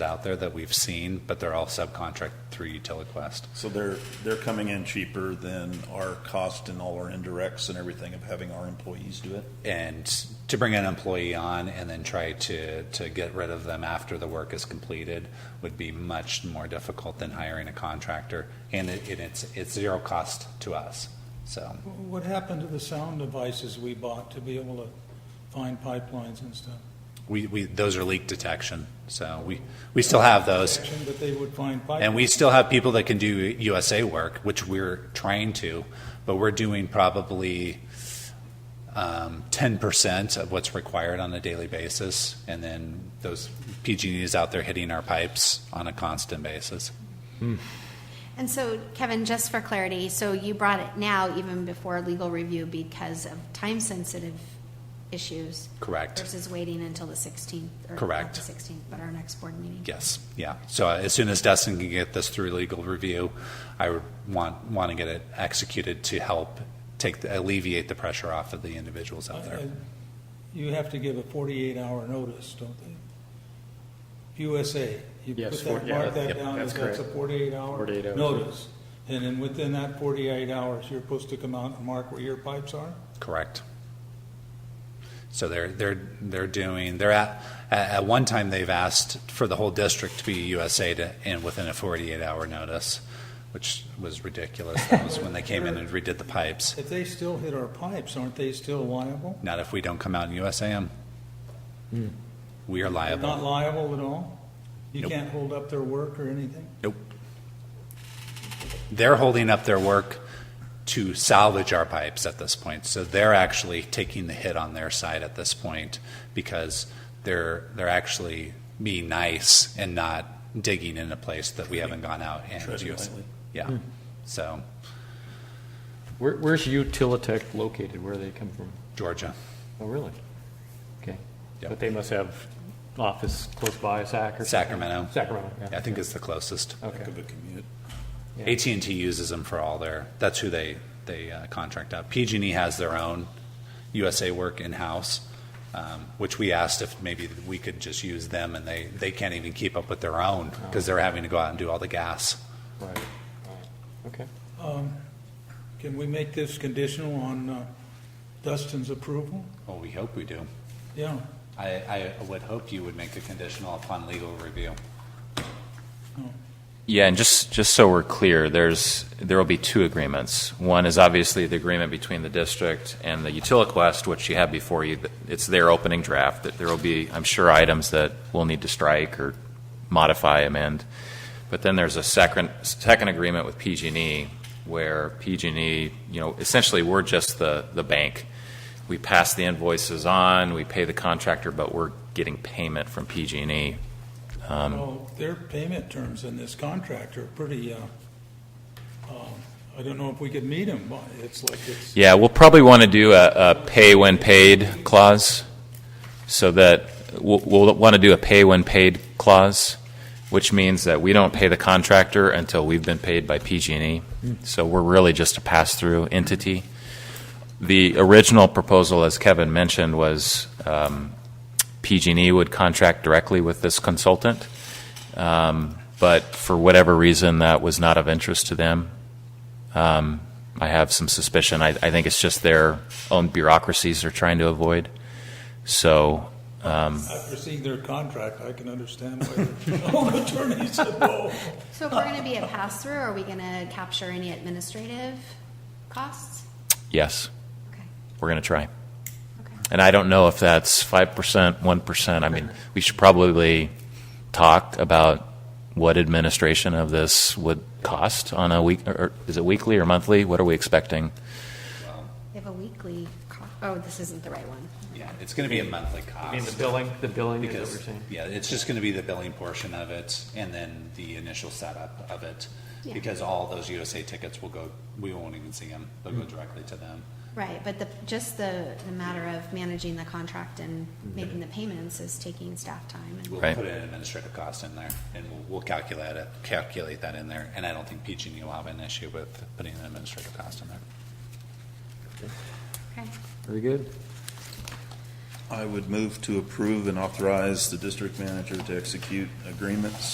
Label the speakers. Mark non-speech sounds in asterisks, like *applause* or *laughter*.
Speaker 1: out there that we've seen, but they're all subcontract through UtiliQuest.
Speaker 2: So they're, they're coming in cheaper than our cost and all our indirects and everything of having our employees do it?
Speaker 1: And to bring an employee on and then try to, to get rid of them after the work is completed would be much more difficult than hiring a contractor. And it, and it's, it's zero cost to us, so.
Speaker 3: What happened to the sound devices we bought to be able to find pipelines and stuff?
Speaker 1: We, we, those are leak detection, so we, we still have those.
Speaker 3: But they would find pipelines.
Speaker 1: And we still have people that can do USA work, which we're trying to, but we're doing probably um, 10% of what's required on a daily basis. And then those PG&E is out there hitting our pipes on a constant basis.
Speaker 4: And so, Kevin, just for clarity, so you brought it now even before legal review because of time-sensitive issues?
Speaker 1: Correct.
Speaker 4: Versus waiting until the 16th? or not
Speaker 1: Correct.
Speaker 4: the 16th, but our next board meeting?
Speaker 1: Yes, yeah. So uh, as soon as Dustin can get this through legal review, I would want, want to get it executed to help take, the- alleviate the pressure off of the individuals out there.
Speaker 3: I- I- You have to give a 48-hour notice, don't they? USA, you
Speaker 5: Yes,
Speaker 3: put
Speaker 5: four-
Speaker 3: that,
Speaker 5: yeah,
Speaker 3: mark that
Speaker 5: yep,
Speaker 3: down as
Speaker 5: that's
Speaker 3: that's a
Speaker 5: correct.
Speaker 3: 48-hour
Speaker 5: 48 hours.
Speaker 3: notice. And then within that 48 hours, you're supposed to come out and mark where your pipes are?
Speaker 1: Correct. So they're, they're, they're doing, they're at, at at one time, they've asked for the whole district to be USA to, and within a 48-hour notice, which was ridiculous. That was when they came in and redid the pipes.
Speaker 3: If they still hit our pipes, aren't they still liable?
Speaker 1: Not if we don't come out and USA them. We are
Speaker 3: Not
Speaker 1: liable.
Speaker 3: liable at all? You
Speaker 1: Nope.
Speaker 3: can't hold up their work or anything?
Speaker 1: Nope. They're holding up their work to salvage our pipes at this point. So they're actually taking the hit on their side at this point because they're, they're actually being nice and not digging in a place that we haven't gone out and
Speaker 2: Treading
Speaker 1: used.
Speaker 2: lightly.
Speaker 1: Yeah, so
Speaker 5: Where, where's Utilitech located? Where do they come from?
Speaker 1: Georgia,
Speaker 5: Oh, really? Okay.
Speaker 1: Yep.
Speaker 5: But they must have office close by Sac or? something?
Speaker 1: Sacramento,
Speaker 5: Sacramento,
Speaker 1: I
Speaker 5: yeah.
Speaker 1: think is the closest.
Speaker 5: Okay.
Speaker 2: Of a commute.
Speaker 5: Yeah.
Speaker 1: at and T uses them for all their, that's who they, they uh, contract out. PG&E has their own USA work in-house, um, which we asked if maybe we could just use them, and they, they can't even keep up with their own, because they're having to go out and do all the gas.
Speaker 5: Right. right. Okay.
Speaker 3: Um, Can we make this conditional on uh, Dustin's approval?
Speaker 1: Well, we hope we do.
Speaker 3: Yeah,
Speaker 1: I, I would hope you would make it conditional upon legal review.
Speaker 6: Yeah, and just, just so we're clear, there's, there will be two agreements. One is obviously the agreement between the district and the Utiliquest, which you have before you. It's their opening draft, that there will be, I'm sure, items that we'll need to strike or modify, amend. But then there's a second, second agreement with PG&E, E where PG&E, E, you know, essentially, we're just the, the bank. We pass the invoices on, we pay the contractor, but we're getting payment from PG&E. Um,
Speaker 3: well, their payment terms in this contract are pretty, uh, um, I don't know if we could meet them, but it's like it's,
Speaker 6: Yeah, we'll probably want to do a, a pay when paid clause, so that, we'll, we'll want to do a pay when paid clause, which means that we don't pay the contractor until we've been paid by PG&E. E. So we're really just a pass-through entity. The original proposal, as Kevin mentioned, was um, PG&E E would contract directly with this consultant, Um, but for whatever reason, that was not of interest to them. Um, I have some suspicion. I, I think it's just their own bureaucracies they're trying to avoid. So, um,
Speaker 3: I've received their contract, I can understand why *laughs* their own attorney said, no.
Speaker 4: So if we're going to be a pass-through, are we going to capture any administrative costs?
Speaker 6: yes,
Speaker 4: Okay,
Speaker 6: we're going to try.
Speaker 4: okay.
Speaker 6: And I don't know if that's 5%, 1%. I mean, we should probably talk about what administration of this would cost on a week, or, or is it weekly or monthly? What are we expecting?
Speaker 4: They have a weekly, co- oh, this isn't the right one.
Speaker 1: Yeah, it's gonna be a monthly
Speaker 5: I mean, the
Speaker 1: cost.
Speaker 5: billing, the billing is what
Speaker 1: Because,
Speaker 5: we're saying.
Speaker 1: yeah, it's just gonna be the billing portion of it, and then the initial setup of it.
Speaker 4: Yeah.
Speaker 1: Because all those USA tickets will go, we won't even see them, they'll
Speaker 5: Mm.
Speaker 1: go directly to them.
Speaker 4: Right, but the, just the, the matter of managing the contract and making the payments is taking staff time and.
Speaker 1: We'll
Speaker 6: Right.
Speaker 1: put an administrative cost in there, and we'll, we'll calculate it, calculate that in there, and I don't think PG&E will have an issue with putting an administrative cost in there.
Speaker 4: Okay.
Speaker 5: Very good.
Speaker 2: I would move to approve and authorize the district manager to execute agreements